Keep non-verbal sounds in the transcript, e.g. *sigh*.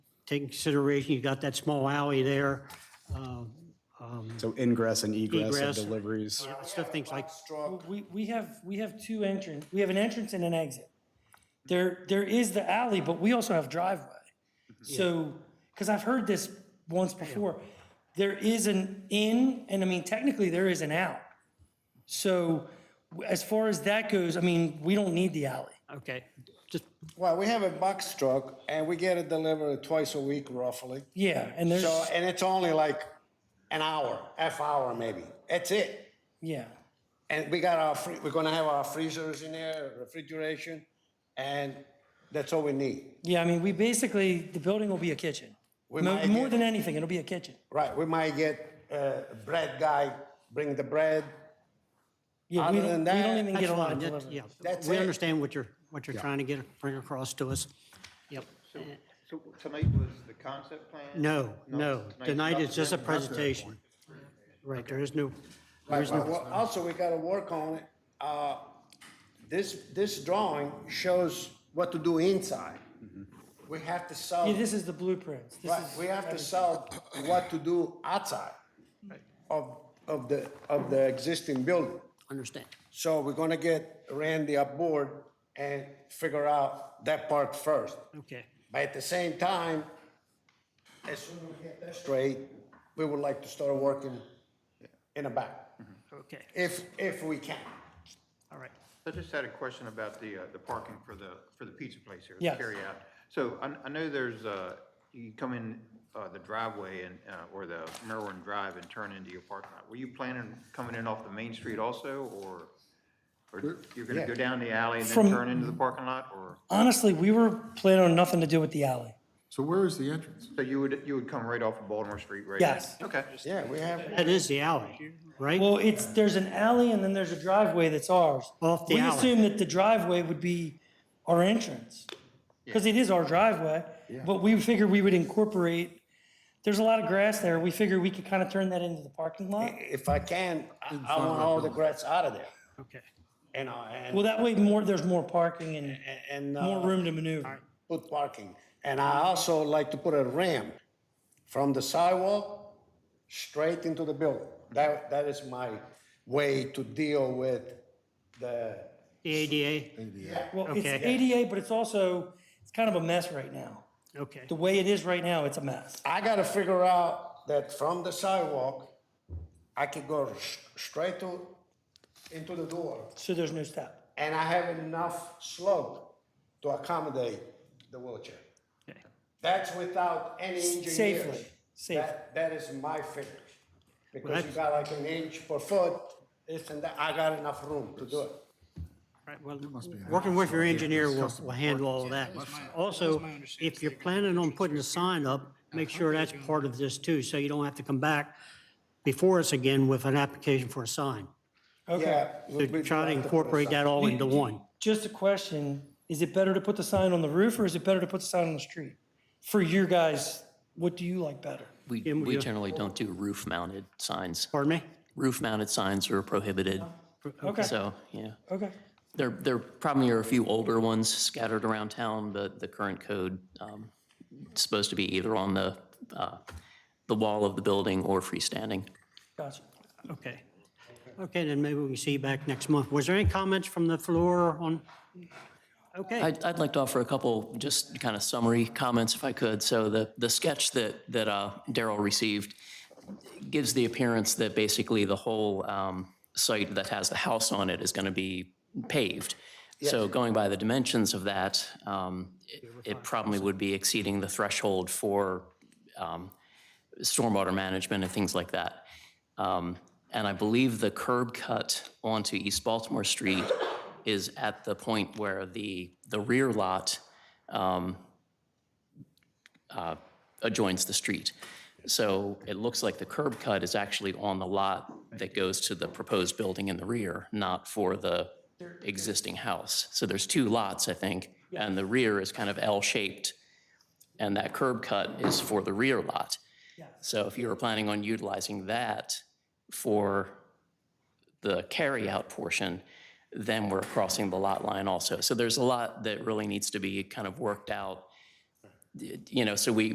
take in consideration, you've got that small alley there. uh, um, So ingress and egress of Egress. deliveries. Stuff, things like, Well, We, we have, we have two entrance, we have an entrance and an exit. There, there is the alley, but we also have driveway. So, because I've heard this once before, there is an in, and I mean, technically there is an out. So w- as far as that goes, I mean, we don't need the alley. okay, just, Well, we have a box truck and we get it delivered twice a week roughly. Yeah, and there's, So, and it's only like an hour, half hour maybe. That's it. yeah. And we got our, free- we're gonna have our freezers in there, refrigeration, and that's all we need. Yeah, I mean, we basically, the building will be a kitchen. We Mo- might More get- than anything, it'll be a kitchen. Right, we might get uh, bread guy, bring the bread. Yeah, we Other don't, we than don't that- even that's get a lot fine, of that- delivery. yeah. That's We it. understand what you're, what you're trying to get, bring across to us. Yep. Uh, So so tonight was the concept plan? No, no, tonight's tonight not is just a the- not the- presentation. Right, there is no, there Right, is no. well, well, also, we gotta work on it. Uh, This, this drawing shows what to do inside. Mm-hmm. We have to sell. Yeah, this is the blueprints. This Right, is we have to everything. sell what to do outside of, of the, of the existing building. Understand. So we're gonna get Randy aboard and figure out that part first. Okay. But at the same time, as soon as we get that straight, we would like to start working in the back, Mm-hmm. Okay. if, if we can. All right. I just had a question about the, uh, the parking for the, for the pizza place here, the Yes. carryout. So I, I know there's, uh, you come in, uh, the driveway and, uh, or the Merwin Drive and turn into your parking lot. Were you planning coming in off the main street also, or, or you're gonna go down the alley and From- then turn into the parking lot, or? Honestly, we were planning on nothing to do with the alley. So where is the entrance? So you would, you would come right off of Baltimore Street, right? Yes. Okay. Yeah, we have. That is the alley, right? Well, it's, there's an alley and then there's a driveway that's ours. Off the We alley. assume that the driveway would be our entrance. Because it is our driveway, but we figured we would incorporate, there's a lot of grass there. We figured we could kind of turn that into the parking lot. If I can, I I want all the grass out of there, Okay. you know, and. Well, that way more, there's more parking and and, uh, more room to maneuver. put parking. And I also like to put a ramp from the sidewalk straight into the building. That, that is my way to deal with the, The ADA, Well, it's Okay. ADA, but it's also, it's kind of a mess right now. okay. The way it is right now, it's a mess. I gotta figure out that from the sidewalk, I can go s- straight to, into the door. So there's no step. And I have enough slope to accommodate the wheelchair. Okay. That's without any engineers. Safely, safely. That, that is my figure. Because you that's- got like an inch per foot, this and that, I got enough room to do it. All right, well, be an working with your option. engineer Yeah, will, it's will handle all of that. Also, if you're planning on putting a sign up, make sure that's part of this too, so you don't have to come back before us again with an application for a sign. Okay. Yeah. we- To we try to have put a incorporate that sign. all *laughs* into one. Just a question, is it better to put the sign on the roof or is it better to put the sign on the street? For your guys, what do you like better? We, Jim, would we you- generally don't do roof-mounted signs. Pardon me? Roof-mounted signs are prohibited, Okay, so, yeah. okay. There, there probably are a few older ones scattered around town, but the current code, um, it's supposed to be either on the, uh, the wall of the building or freestanding. Gotcha. Okay. Okay, then maybe we can see you back next month. Was there any comments from the floor on? Okay, I'd, I'd like to offer a couple just kind of summary comments if I could. So the, the sketch that, that uh, Daryl received gives the appearance that basically the whole um, site that has the house on it is going to be paved. So going by the dimensions of that, um, it it probably would be exceeding the threshold for um, stormwater management and things like that. Um, And I believe the curb cut onto East Baltimore Street is at the point where the, the rear lot um, uh, adjoins the street. So it looks like the curb cut is actually on the lot that goes to the proposed building in the rear, not for the existing house. So there's two lots, I think, and the rear is kind of L-shaped, and that curb cut is for the rear lot. So if you were planning on utilizing that for the carryout portion, then we're crossing the lot line also. So there's a lot that really needs to be kind of worked out, you know, so we,